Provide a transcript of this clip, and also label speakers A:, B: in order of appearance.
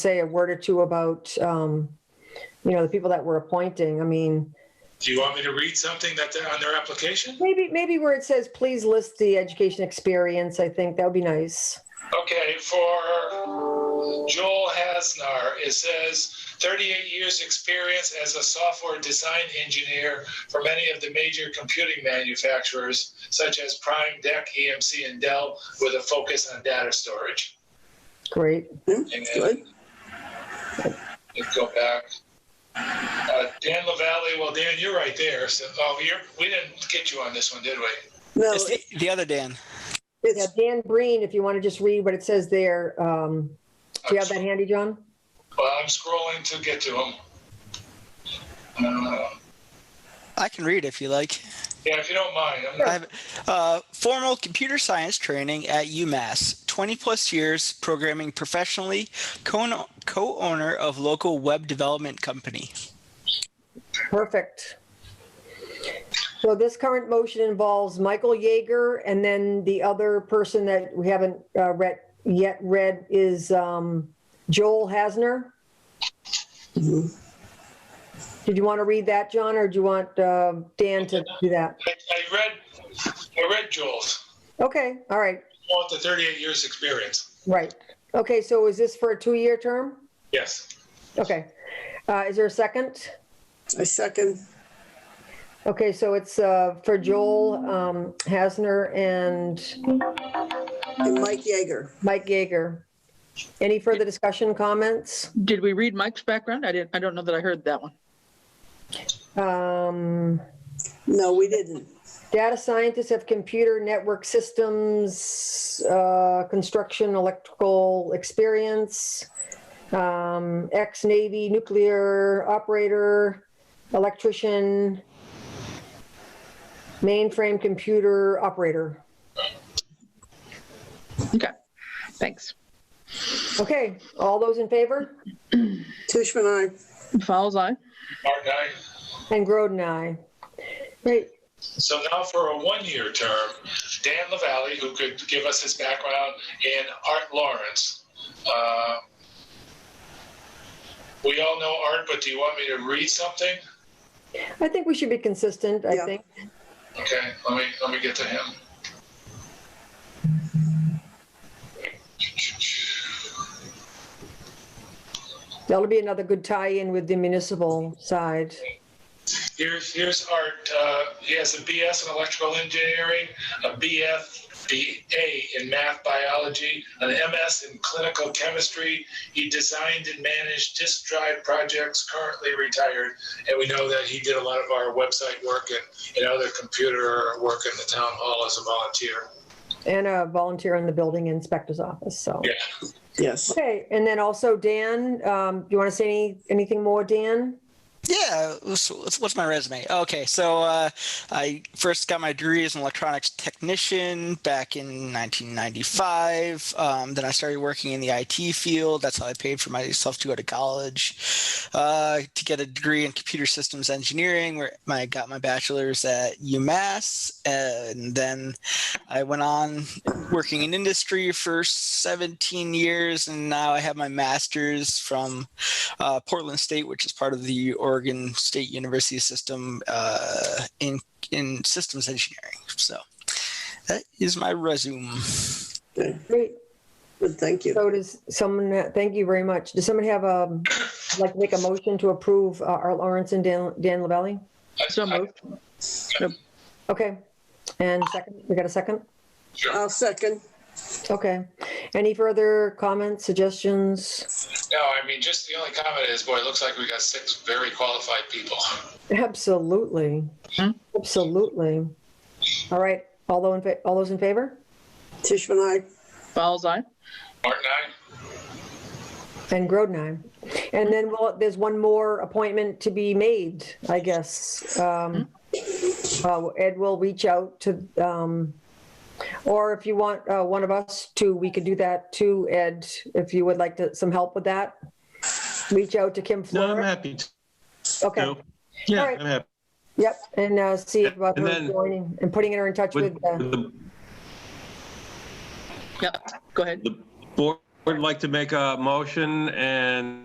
A: say a word or two about, um, you know, the people that we're appointing. I mean,
B: Do you want me to read something that they're on their application?
A: maybe, maybe where it says, please list the education experience, I think that would be nice.
B: Okay, for Joel Hasnar, it says 38 years experience as a software design engineer for many of the major computing manufacturers such as Prime, DEC, EMC, and Dell, with a focus on data storage.
A: Great.
B: And
C: That's good.
B: Let's go back. Uh, Dan LaValle, well, Dan, you're right there. So, oh, you're, we didn't get you on this one, did we?
C: No,
D: It's the,
C: it-
D: the other Dan.
A: Yeah,
C: it's,
A: Dan Breen, if you want to just read what it says there. Um, do you have that handy, John?
B: Well, I'm scrolling to get to him. Uh,
D: I can read if you like.
B: yeah, if you don't mind. I'm
D: I have, uh, formal computer science training at UMass, 20 plus years programming professionally, co owner of local web development company.
A: Perfect. So this current motion involves Michael Yeager, and then the other person that we haven't uh, read, yet read is um, Joel Hasner.
C: Mhm.
A: Did you want to read that, John, or do you want uh, Dan to do that?
B: I, I read, I read Joel's.
A: Okay, all right,
B: Want the 38 years experience?
A: right. Okay, so is this for a two-year term?
B: Yes.
A: Okay. Uh, Is there a second?
C: I second.
A: Okay, so it's uh, for Joel um, Hasner and
C: And Mike Yeager.
A: Mike Yeager. Any further discussion, comments?
E: Did we read Mike's background? I didn't, I don't know that I heard that one.
A: Um,
C: No, we didn't.
A: Data scientists of computer network systems, uh, construction, electrical experience, um, ex-Navy nuclear operator, electrician, mainframe computer operator.
E: Okay, thanks.
A: Okay, all those in favor?
C: Tishman, I,
E: Fowles, aye.
B: Martin, I.
A: And Groden, aye. Great,
B: So now for a one-year term, Dan LaValle, who could give us his background, and Art Lawrence. Uh, we all know Art, but do you want me to read something?
A: I think we should be consistent, I
C: Yeah.
A: think.
B: Okay, let me, let me get to him.
A: That'll be another good tie-in with the municipal side.
B: Here's here's Art. Uh, he has a BS in electrical engineering, a BF, BA in math biology, an MS in clinical chemistry. He designed and managed disk drive projects. Currently retired, and we know that he did a lot of our website work and, and other computer work in the town hall as a volunteer.
A: And a volunteer in the building inspector's office, so.
B: Yeah.
C: yes.
A: Okay, and then also Dan, um, you want to say any, anything more, Dan?
D: Yeah, what's, what's my resume? Okay, so uh, I first got my degree as an electronics technician back in 1995. Um, then I started working in the IT field. That's how I paid for myself to go to college uh, to get a degree in computer systems engineering, where I got my bachelor's at UMass. And then I went on working in industry for 17 years, and now I have my master's from uh, Portland State, which is part of the Oregon State University system uh, in in systems engineering. So that is my resume.
C: Okay,
A: Great,
C: Good, thank you.
A: so does someone, uh, thank you very much. Does someone have, um, like, to make a motion to approve uh, Art Lawrence and Dan, Dan Lavalley?
E: So moved.
A: Okay, and second, we got a second?
C: I'll second.
A: Okay, any further comments, suggestions?
B: No, I mean just the only comment is, boy, it looks like we got six very qualified people.
A: Absolutely,
E: Hmm?
A: absolutely. All right, all those in, fa- all those in favor?
C: Tishman, I,
E: Fowles, aye.
B: Martin, I.
A: And Grodenheim. And then, well, there's one more appointment to be made, I guess. Um, uh, Ed will reach out to, um, or if you want, uh, one of us to, we could do that too, Ed, if you would like to, some help with that. Reach out to Kim
F: No, I'm
A: Flora.
F: happy to.
A: Okay,
F: Yeah,
A: All right.
F: I'm happy.
A: yep, and, uh, see about
F: And
A: her
F: then-
A: joining and putting uh, her in touch with,
F: Would
A: uh,
F: the
E: Yeah, go ahead.
F: board Would like to make a motion and